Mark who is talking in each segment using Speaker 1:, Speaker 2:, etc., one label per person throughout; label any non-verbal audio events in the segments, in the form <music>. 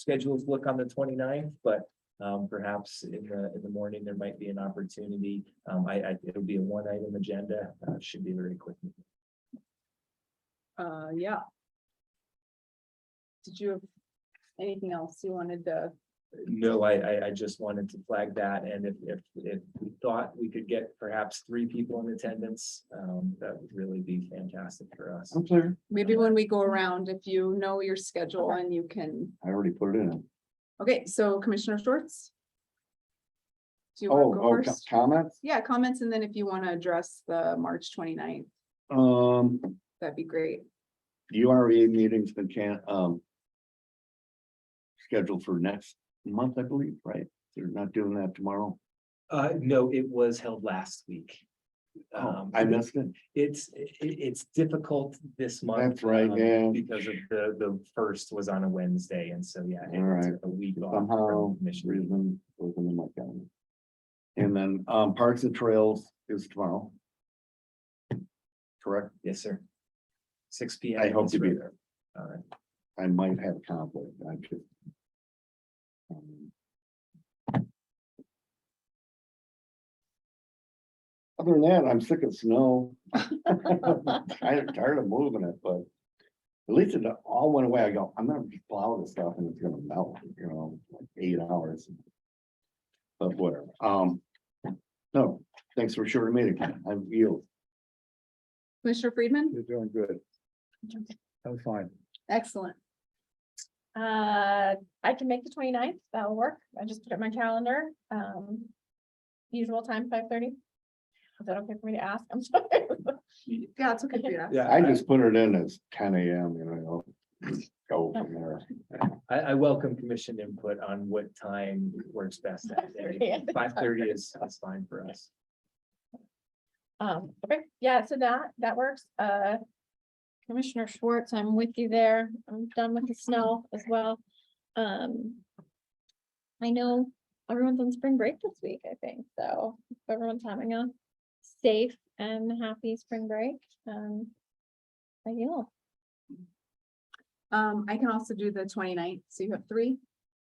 Speaker 1: schedules look on the 29th, but um, perhaps in the, in the morning, there might be an opportunity. Um, I, I, it'll be a one item agenda, uh, should be very quick.
Speaker 2: Uh, yeah. Did you have anything else you wanted to?
Speaker 1: No, I, I, I just wanted to flag that, and if, if, if we thought we could get perhaps three people in attendance, um, that would really be fantastic for us.
Speaker 3: I'm sorry,
Speaker 2: Maybe when we go around, if you know your schedule and you can,
Speaker 3: I already put it in.
Speaker 2: okay, so Commissioner Schwartz? Do you
Speaker 3: Oh,
Speaker 2: want to
Speaker 3: oh,
Speaker 2: go
Speaker 3: co-
Speaker 2: first?
Speaker 3: comments?
Speaker 2: Yeah, comments, and then if you want to address the March 29th,
Speaker 3: Um,
Speaker 2: that'd be great.
Speaker 3: URA meetings been can, um. Scheduled for next month, I believe, right? They're not doing that tomorrow.
Speaker 1: Uh, no, it was held last week.
Speaker 3: Oh,
Speaker 1: Um,
Speaker 3: I missed it.
Speaker 1: It's, it, it's difficult this month.
Speaker 3: That's right,
Speaker 1: um,
Speaker 3: yeah.
Speaker 1: Because of the, the first was on a Wednesday, and so, yeah. it
Speaker 3: All
Speaker 1: was
Speaker 3: right.
Speaker 1: A week off.
Speaker 3: Somehow,
Speaker 1: uh, from mission.
Speaker 3: reason, wasn't in my calendar. And then, um, Parks and Trails is tomorrow. Correct?
Speaker 1: Yes, sir. Six P M.
Speaker 3: I hope to be
Speaker 1: there. All right.
Speaker 3: I might have a conflict, I could. um, Other than that, I'm sick of snow. <laughs> I'm tired of moving it, but at least it all went away. I go, I'm gonna just plow this stuff and it's gonna melt, you know, like eight hours. But whatever, um, no, thanks for short meeting. I'm you.
Speaker 2: Commissioner Friedman,
Speaker 3: You're doing good. That was fine.
Speaker 2: excellent.
Speaker 4: Uh, I can make the 29th. that'll work, I just put it in my calendar, um. Usual time, five thirty. Is that okay for me to ask? I'm <laughs> sorry.
Speaker 2: Yeah, it's okay. if you ask.
Speaker 1: Yeah,
Speaker 3: I just put it in as ten AM, you know, go from there.
Speaker 1: I, I welcome commission input on what time works best. that
Speaker 4: <laughs>
Speaker 1: day.
Speaker 4: 5:30.
Speaker 1: Five thirty is, is fine for us.
Speaker 4: Um, okay, yeah, so that, that works, uh. Commissioner Schwartz, I'm with you there, I'm done with the snow as well, um. I know everyone's on spring break this week, I think, so if everyone's having a safe and happy spring break, um. I will.
Speaker 2: Um, I can also do the 29th, so you have three,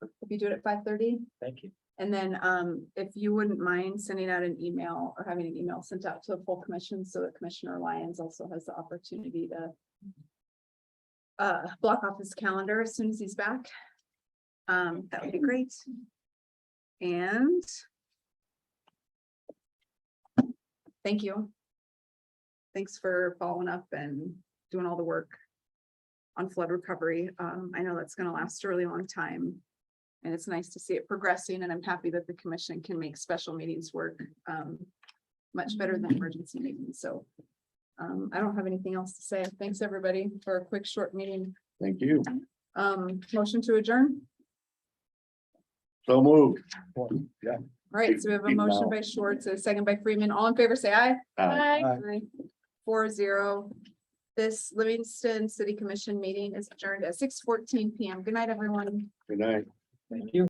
Speaker 2: if you do it at five thirty.
Speaker 1: Thank you.
Speaker 2: And then um, if you wouldn't mind sending out an email or having an email sent out to the full commission so that Commissioner Lyons also has the opportunity to. Uh, block off his calendar as soon as he's back. Um, that would be great. And. Thank you. Thanks for following up and doing all the work. On flood recovery. Um, I know that's gonna last a really long time. And it's nice to see it progressing and I'm happy that the commission can make special meetings work um much better than emergency meetings, so. Um, I don't have anything else to say. Thanks, everybody, for a quick, short meeting.
Speaker 3: Thank you.
Speaker 2: Um, motion to adjourn.
Speaker 3: So moved. Yeah.
Speaker 2: All right, so we have a
Speaker 3: Big
Speaker 2: motion
Speaker 3: mouth.
Speaker 2: by Schwartz, a second by Freeman. All in favor, say aye.
Speaker 3: Uh,
Speaker 4: Bye.
Speaker 2: Aye. Four zero. This Livingston City Commission meeting is adjourned at six fourteen PM. Good night, everyone.
Speaker 3: Good night.
Speaker 1: Thank you.